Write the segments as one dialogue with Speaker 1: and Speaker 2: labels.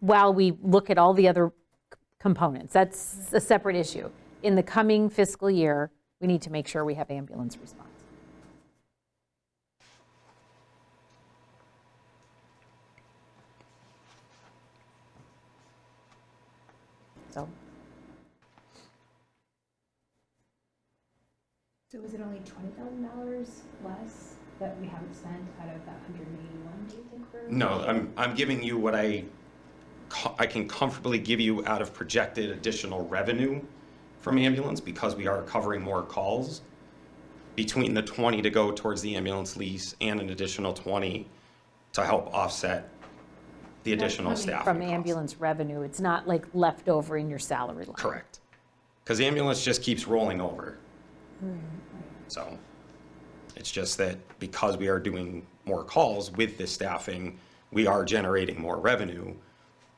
Speaker 1: while we look at all the other c- components. That's a separate issue. In the coming fiscal year, we need to make sure we have ambulance response. So,
Speaker 2: So is it only twenty thousand dollars less that we haven't spent out of that hundred and eighty-one, do you think we're?
Speaker 3: No, I'm, I'm giving you what I, co- I can comfortably give you out of projected additional revenue from ambulance because we are covering more calls. Between the 20 to go towards the ambulance lease and an additional 20 to help offset the additional
Speaker 2: coming
Speaker 3: staffing
Speaker 1: from
Speaker 3: costs.
Speaker 1: ambulance revenue, it's not like left over in your salary line.
Speaker 3: Correct. Because ambulance just keeps rolling over. So it's just that because we are doing more calls with this staffing, we are generating more revenue.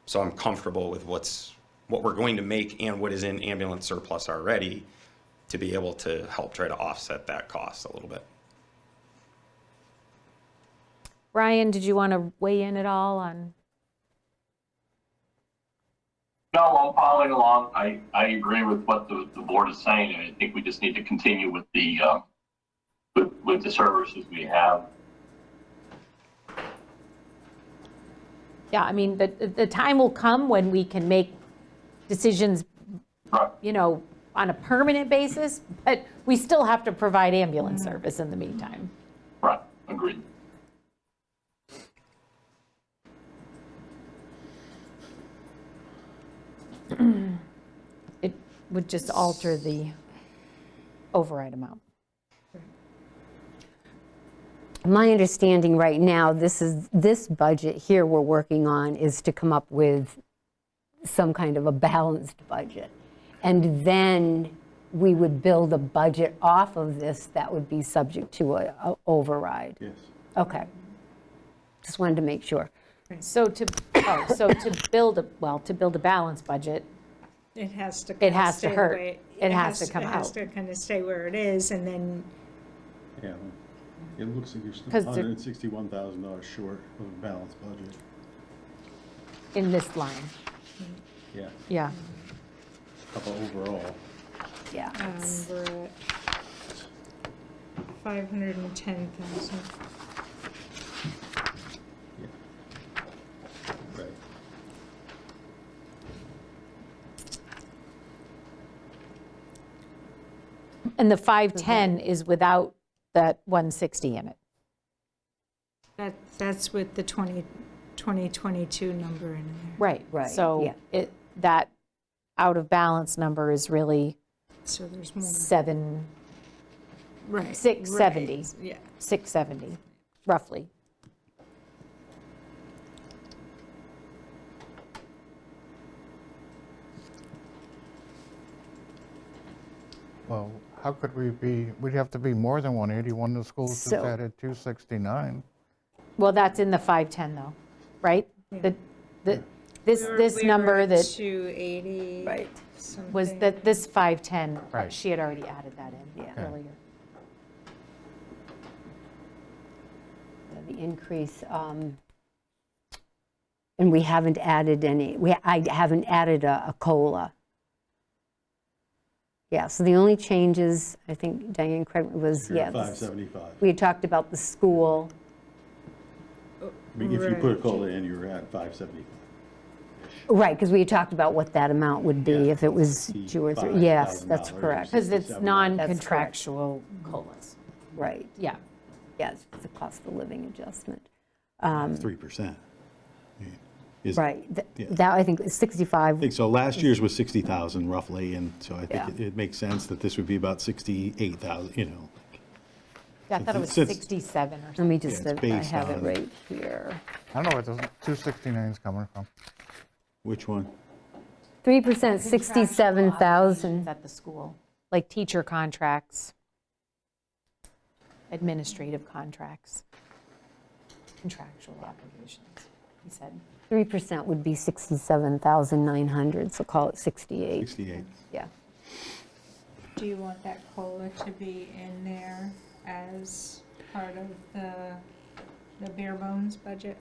Speaker 3: So I'm comfortable with what's, what we're going to make and what is in ambulance surplus already to be able to help try to offset that cost a little bit.
Speaker 1: Brian, did you want to weigh in at all on?
Speaker 4: No, I'm following along. I, I agree with what the, the board is saying, and I think we just need to continue with the, uh, with, with the services we have.
Speaker 1: Yeah, I mean, the, the time will come when we can make decisions,
Speaker 4: Right.
Speaker 1: you know, on a permanent basis, but we still have to provide ambulance service in the meantime.
Speaker 4: Right, agreed.
Speaker 1: It would just alter the override amount.
Speaker 5: My understanding right now, this is, this budget here we're working on is to come up with some kind of a balanced budget. And then we would build a budget off of this that would be subject to a a override. Yes. Okay. Just wanted to make sure.
Speaker 1: So to, oh, so to build, a well, to build a balanced budget,
Speaker 6: It has to.
Speaker 1: It has to
Speaker 6: stay the
Speaker 1: hurt.
Speaker 6: way-
Speaker 1: It has to come
Speaker 6: It has
Speaker 1: out.
Speaker 6: to kind of stay where it is, and then
Speaker 7: Yeah, it looks like you're still
Speaker 1: 'Cause they're-
Speaker 7: hundred and sixty-one thousand dollars short of a balanced budget.
Speaker 1: in this line,
Speaker 7: Yeah.
Speaker 1: yeah.
Speaker 7: Couple overall.
Speaker 5: Yeah.
Speaker 6: um, we're at 510,000.
Speaker 7: Yeah. Right.
Speaker 1: And the 510 is without that 160 in it.
Speaker 6: That, that's with the 20, 2022 number in there.
Speaker 1: Right,
Speaker 5: Right,
Speaker 1: So
Speaker 5: yeah.
Speaker 1: it, that out of balance number is really
Speaker 6: So there's more.
Speaker 1: 7,
Speaker 6: Right.
Speaker 1: six
Speaker 6: right,
Speaker 1: seventy.
Speaker 6: Yeah.
Speaker 1: 670, roughly.
Speaker 8: Well, how could we be, we'd have to be more than 181, the school just
Speaker 5: So-
Speaker 8: added 269.
Speaker 1: Well, that's in the 510 though, right? The, the, this,
Speaker 6: We were-
Speaker 1: this
Speaker 6: we were
Speaker 1: number
Speaker 6: at
Speaker 1: that
Speaker 6: 280.
Speaker 5: Right.
Speaker 1: was,
Speaker 6: something.
Speaker 1: that this 510, uh,
Speaker 8: Right.
Speaker 1: she had already added that in
Speaker 5: Yeah.
Speaker 1: earlier.
Speaker 5: the increase, um, and we haven't added any, we, I haven't added a a COLA. Yeah, so the only changes, I think Diane, correct, me, was,
Speaker 7: You're
Speaker 5: yeah,
Speaker 7: at five
Speaker 5: this-
Speaker 7: seventy-five.
Speaker 5: we had talked about the school,
Speaker 7: I mean, if you put a
Speaker 6: Right.
Speaker 7: COLA in, you're at five seventy-five.
Speaker 5: right, because we had talked about what that amount would be
Speaker 7: Yeah,
Speaker 5: if it was two or three.
Speaker 7: $65,000
Speaker 5: Yes, that's correct,
Speaker 1: Because it's
Speaker 7: That's correct.
Speaker 1: non-contractual COLAs.
Speaker 5: right,
Speaker 1: Yeah,
Speaker 5: yes, it's a cost of living adjustment.
Speaker 7: Three percent.
Speaker 5: Right, Th-
Speaker 7: Yeah.
Speaker 5: that, I think, is 65,
Speaker 7: I think so. Last year's was sixty thousand roughly, and so I
Speaker 5: Yeah.
Speaker 7: think it- it makes sense that this would be about sixty-eight thousand, you know.
Speaker 1: Yeah, I thought it was
Speaker 7: Since-
Speaker 1: 67 or
Speaker 5: let
Speaker 1: something.
Speaker 5: me just,
Speaker 7: Yeah, it's
Speaker 5: I
Speaker 7: based
Speaker 5: have it
Speaker 7: on-
Speaker 5: right here.
Speaker 8: I don't know where the 269 is coming from.
Speaker 7: Which one?
Speaker 5: 3%, 67,000.
Speaker 1: At the school, like teacher contracts, administrative contracts, contractual obligations, he said.
Speaker 5: 3% would be 67,900, so call it 68,
Speaker 7: Sixty-eight.
Speaker 5: yeah.
Speaker 6: Do you want that COLA to be in there as part of the, the bare bones budget?